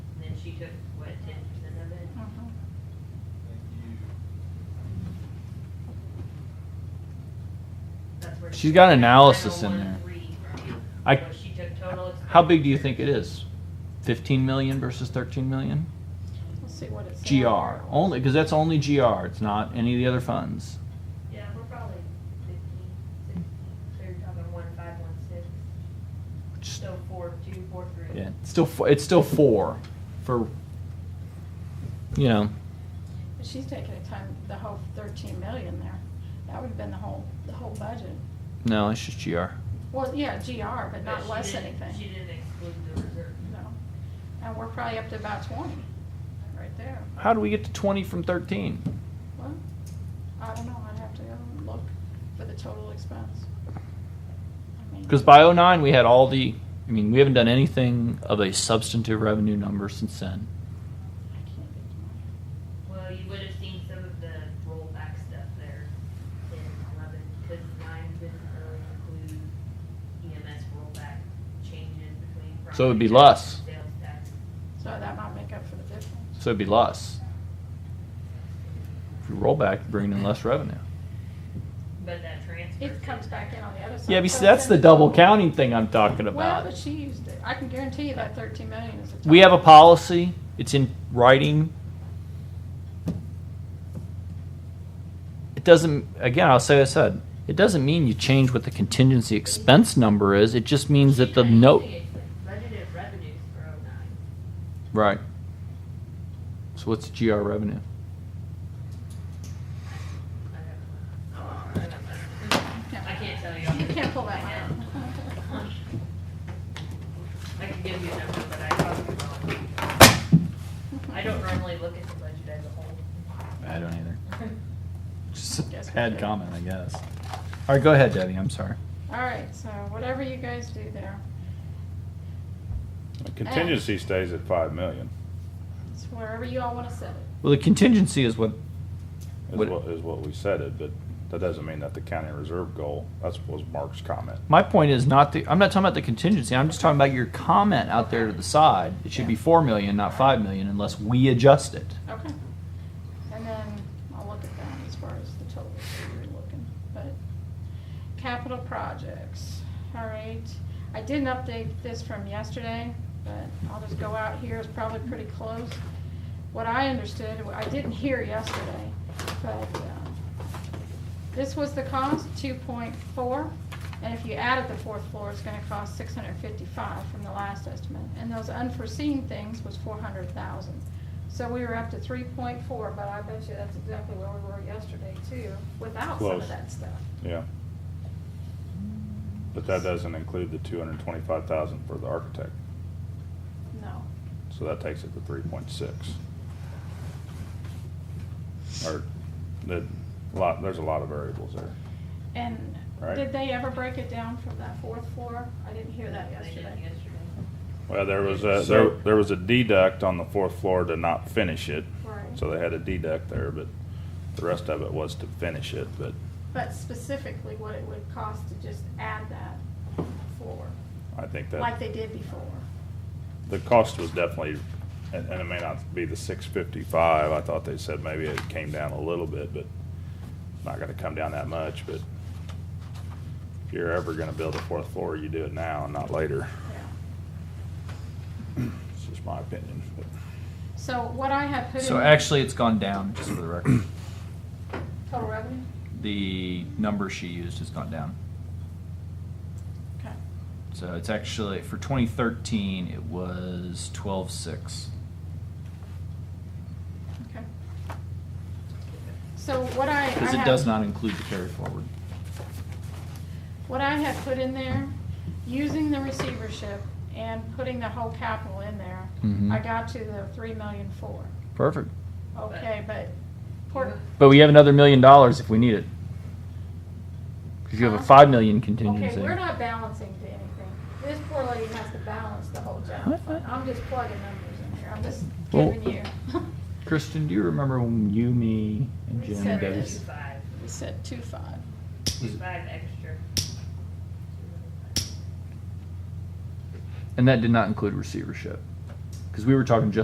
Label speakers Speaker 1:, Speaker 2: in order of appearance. Speaker 1: took, what, ten percent of it?
Speaker 2: Mm-hmm.
Speaker 1: That's where
Speaker 3: She's
Speaker 1: she
Speaker 3: got
Speaker 1: took
Speaker 3: analysis in
Speaker 1: 901.3 from.
Speaker 3: I-
Speaker 1: So she took total.
Speaker 3: How big do you think it is? 15 million versus 13 million?
Speaker 2: Let's see what it's.
Speaker 3: GR only because that's only GR. It's not any of the other funds.
Speaker 1: Yeah, we're probably fifteen, sixteen, so you're talking one five, one six,
Speaker 3: Just,
Speaker 1: so four, two, four, three.
Speaker 3: yeah, it's still four, it's still four for you know
Speaker 2: But She's taking a time, the whole thirteen million there. That would've been the whole, the whole budget.
Speaker 3: no it's just GR.
Speaker 2: Well, yeah, GR, but not
Speaker 1: she
Speaker 2: less
Speaker 1: didn't- She
Speaker 2: anything.
Speaker 1: didn't exclude the reserve.
Speaker 2: No. And we're probably up to about twenty, right there.
Speaker 3: How do we get to 20 from 13?
Speaker 2: Well, I don't know, I'd have to go and look for the total expense. I mean,
Speaker 3: Because by 09 we had all the I mean we haven't done anything of a substantive revenue number since then.
Speaker 2: I can't get to
Speaker 1: Well, you would have seen some of the rollback stuff there in eleven, because nine didn't really include EMS rollback changes between.
Speaker 3: So it would be
Speaker 1: property tax
Speaker 3: less.
Speaker 1: and Sales tax.
Speaker 2: my- So that might make up for the difference.
Speaker 3: So it'd be less. If you roll back, you're bringing in less revenue.
Speaker 1: But that transfer.
Speaker 2: It comes back in on the other side.
Speaker 3: Yeah, but
Speaker 2: So
Speaker 3: see, that's
Speaker 2: it's
Speaker 3: the
Speaker 2: in
Speaker 3: double
Speaker 2: total.
Speaker 3: counting thing I'm talking
Speaker 2: Well,
Speaker 3: about.
Speaker 2: but she used it. I can guarantee you that thirteen million is a total.
Speaker 3: We have a policy, it's in writing. It doesn't, again, I'll say what I said, it doesn't mean you change what the contingency expense number is, it just means that the
Speaker 1: She
Speaker 3: note.
Speaker 1: actually Budgeted revenues for oh nine.
Speaker 3: Right. So what's GR revenue?
Speaker 1: I don't know. I can't tell you. off
Speaker 2: You
Speaker 1: the
Speaker 2: can't pull
Speaker 1: top
Speaker 2: that
Speaker 1: of my head.
Speaker 2: one out.
Speaker 1: I can give you a number, but I probably won't. I don't normally look at the budget as a whole.
Speaker 3: I don't either. Just a
Speaker 2: Guess we
Speaker 3: bad
Speaker 2: should.
Speaker 3: comment, I guess. All right, go ahead, Debbie, I'm sorry.
Speaker 2: All right, so whatever you guys do there,
Speaker 4: Contingency stays at five million,
Speaker 2: it's wherever you all want to set it.
Speaker 3: Well, the contingency is what,
Speaker 4: is
Speaker 3: What-
Speaker 4: what, is what we said it, but that doesn't mean that the county reserve goal, that was Mark's comment.
Speaker 3: my point is not the, I'm not talking about the contingency, I'm just talking about your comment out there to the side. It should be four million, not five million, unless we adjust it.
Speaker 2: Okay. And then I'll look at that as far as the total that you're looking, but capital projects, all right. I didn't update this from yesterday, but I'll just go out here, it's probably pretty close. What I understood, I didn't hear yesterday, but, um, This was the cost, two point four, and if you added the fourth floor, it's gonna cost six hundred fifty-five from the last estimate. And those unforeseen things was four hundred thousand. So we were up to three point four, but I bet you that's exactly where we were yesterday too, without some of
Speaker 4: Close.
Speaker 2: that stuff.
Speaker 4: Yeah. But that doesn't include the two hundred and twenty-five thousand for the architect,
Speaker 2: No,
Speaker 4: so that takes it to three point six. Or, the, lot, there's a lot of variables there.
Speaker 2: and
Speaker 4: Right.
Speaker 2: did they ever break it down from that fourth floor? I didn't hear that
Speaker 1: They did
Speaker 2: yesterday.
Speaker 4: Well, there was a, there,
Speaker 3: So-
Speaker 4: there was a deduct on the fourth floor to not finish it,
Speaker 2: Right.
Speaker 4: so they had a deduct there, but the rest of it was to finish it, but
Speaker 2: But specifically what it would cost to just add that floor,
Speaker 4: I think that.
Speaker 2: like they did before.
Speaker 4: the cost was definitely, and, and it may not be the six fifty-five, I thought they said maybe it came down a little bit, but not gonna come down that much, but if you're ever gonna build a fourth floor, you do it now and not later,
Speaker 2: Yeah.
Speaker 4: it's just my opinion, but
Speaker 2: So what I have put in.
Speaker 3: So actually, it's gone down, just for the record.
Speaker 2: Total revenue?
Speaker 3: The number she used has gone down.
Speaker 2: Okay.
Speaker 3: So it's actually, for 2013, it was 12.6.
Speaker 2: Okay. So what I. I
Speaker 3: Because it
Speaker 2: have-
Speaker 3: does not include the carry forward.
Speaker 2: What I have put in there, using the receivership and putting the whole capital in there,
Speaker 3: Mhm.
Speaker 2: I got to the three million four.
Speaker 3: Perfect.
Speaker 2: Okay, but, port-
Speaker 3: But we have another million dollars if we need it. Because you have a
Speaker 2: Huh?
Speaker 3: 5 million
Speaker 2: okay,
Speaker 3: contingency.
Speaker 2: we're not balancing to anything. This poor lady has to balance the whole general fund. I'm just plugging numbers in here. I'm just
Speaker 3: Well-
Speaker 2: giving you.
Speaker 3: Kristen, do you remember when you, me, and Jim
Speaker 2: Said
Speaker 3: and
Speaker 2: it
Speaker 3: Debbie?
Speaker 2: is.
Speaker 1: Five,
Speaker 2: We said two five.
Speaker 3: Was-
Speaker 1: five extra.
Speaker 3: And that did not include receivership. Because we were talking just